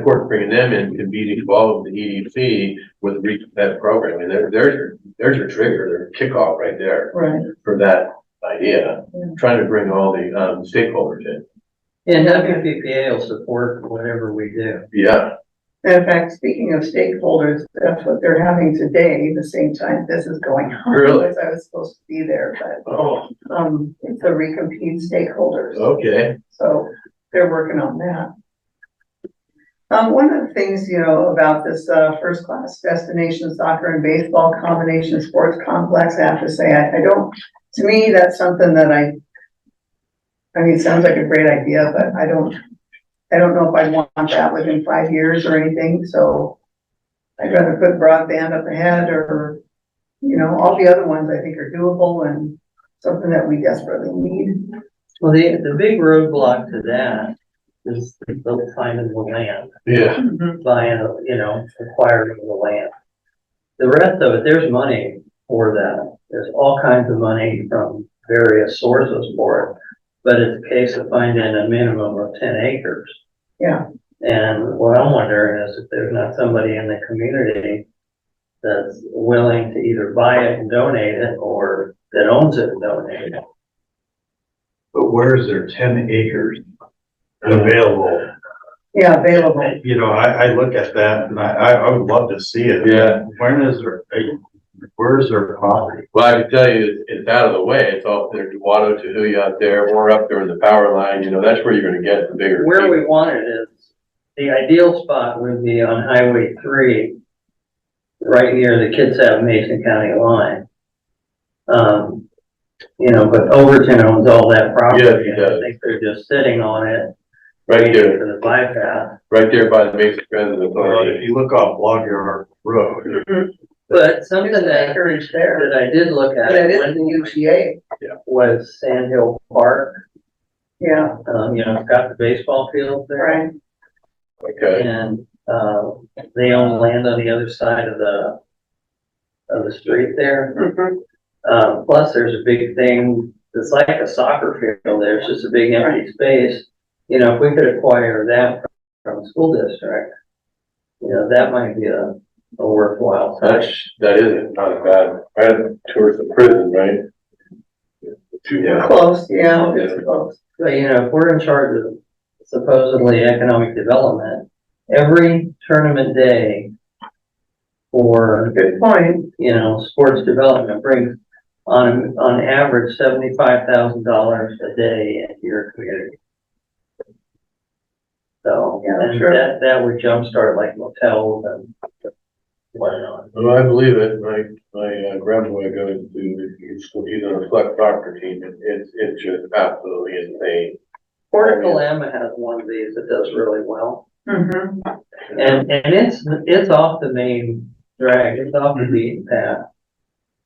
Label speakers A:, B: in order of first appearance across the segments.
A: Of course, bringing them in to be involved with the EDC with re- that program, and there, there's your, there's your trigger, their kickoff right there
B: Right,
A: for that idea.
B: Yeah.
A: Trying to bring all the, um, stakeholders in.
C: And WPPA will support whatever we do.
A: Yeah,
B: in fact, speaking of stakeholders, that's what they're having today, the same time this is going on.
A: Really?
B: Because I was supposed to be there, but,
A: oh,
B: um, it's a recompete stakeholders,
A: okay,
B: so they're working on that. Um, one of the things, you know, about this, uh, first class destination soccer and baseball combination sports complex, I have to say, I, I don't, to me, that's something that I, I mean, it sounds like a great idea, but I don't, I don't know if I'd want that within five years or anything, so I'd rather put broadband up ahead or, you know, all the other ones I think are doable and something that we desperately need.
C: Well, the, the big roadblock to that is the finding the land,
A: yeah,
C: buying, uh, you know, acquiring the land. The rest of it, there's money for that. There's all kinds of money from various sources for it. But it's a case of finding a minimum of ten acres.
B: Yeah.
C: And what I'm wondering is if there's not somebody in the community that's willing to either buy it and donate it or that owns it and donate it.
D: But where is there ten acres available?
B: Yeah, available.
D: You know, I, I look at that and I, I, I would love to see it.
A: yeah.
D: When is there, a- where is their property?
A: Well, I can tell you, it's- it's out of the way, it's all, there's Wado to Huya out there, we're up there in the power line, you know, that's where you're gonna get the bigger.
C: Where we want it is, the ideal spot would be on Highway three, right near the Kitsap Mason County line. Um, you know, but Overton owns all that property.
A: Yes, he does.
C: I think they're just sitting on it.
A: Right
C: waiting
A: there,
C: For the bypass.
A: right there by the Mesa Transit
D: Well, if
A: Authority.
D: you look off Log Yard Road,
C: But something
B: There's
C: that,
B: acreage there.
C: that I did look at.
B: But it is
C: when-
B: the UGA.
C: was Sand Hill Park.
B: Yeah,
C: Um, you know, it's got the baseball field there.
B: right.
A: Okay,
C: And, uh, they own land on the other side of the, of the street there.
B: Mhm.
C: Uh, plus there's a big thing, it's like a soccer field there, it's just a big empty space. You know, if we could acquire that from the school district, you know, that might be a, a worthwhile. site.
A: that's, that is not bad, right towards the prison, right? Yeah.
B: Close, yeah, it's close.
C: But, you know, if we're in charge of supposedly economic development, every tournament day for,
B: Good point.
C: you know, sports development brings on, on average seventy-five thousand dollars a day into your community. So,
B: Yeah,
C: and
B: true.
C: that, that would jumpstart like motels and whatnot.
A: Well, I believe it, my, my uh, grandboy goes to, he's, he's on a select soccer team, and it's, it's just absolutely insane.
C: Port of Kalama has one of these that does really well.
B: Mm-hmm.
C: And, and it's, it's off the main drag, it's off the beaten path.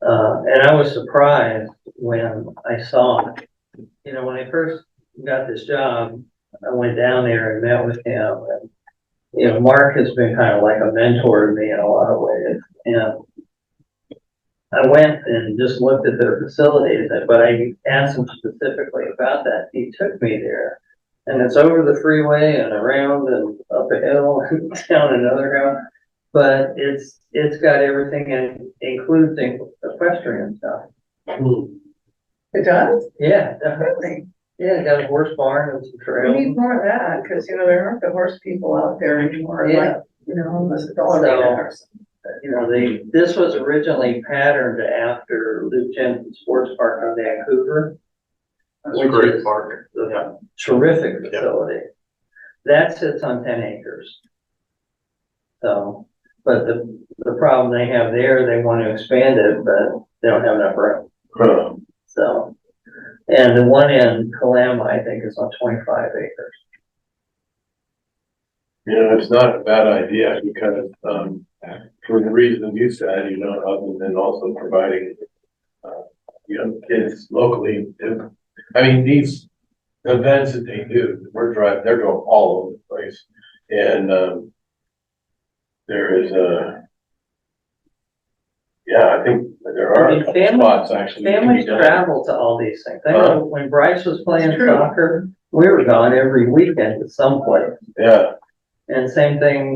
C: Uh, and I was surprised when I saw it. You know, when I first got this job, I went down there and met with him and, you know, Mark has been kind of like a mentor to me in a lot of ways and I went and just looked at their facilities, but I asked him specifically about that. He took me there and it's over the freeway and around and up a hill and down another hill. But it's, it's got everything and includes equestrian stuff.
B: It does,
C: Yeah, definitely.
B: really.
C: yeah, it got a horse barn and some
B: We need
C: trails.
B: more of that, because, you know, there aren't the horse people out there anymore, like,
C: Yeah.
B: you know, unless it's all radar.
C: You know, they, this was originally patterned after Luke Jensen Sports Park on Vancouver.
D: that's
C: which
D: a great
C: is
D: park.
C: the
D: Yeah.
C: Terrific
D: Yeah.
C: facility. That sits on ten acres. So, but the, the problem they have there, they want to expand it, but they don't have enough room.
A: Huh.
C: So, and the one in Kalama, I think, is on twenty-five acres.
A: You know, it's not a bad idea because, um, for the reason you said, you know, other than also providing, uh, you know, kids locally, if- I mean, these events that they do, we're driving, they're going all over the place. And, um, there is a, yeah, I think there are
C: I
A: a
C: mean,
A: couple
C: family-
A: spots actually. that can be
C: Families
A: done.
C: travel to all these things. I know when Bryce was playing
B: It's true.
C: soccer, we were gone every weekend to someplace.
A: Yeah,
C: And same thing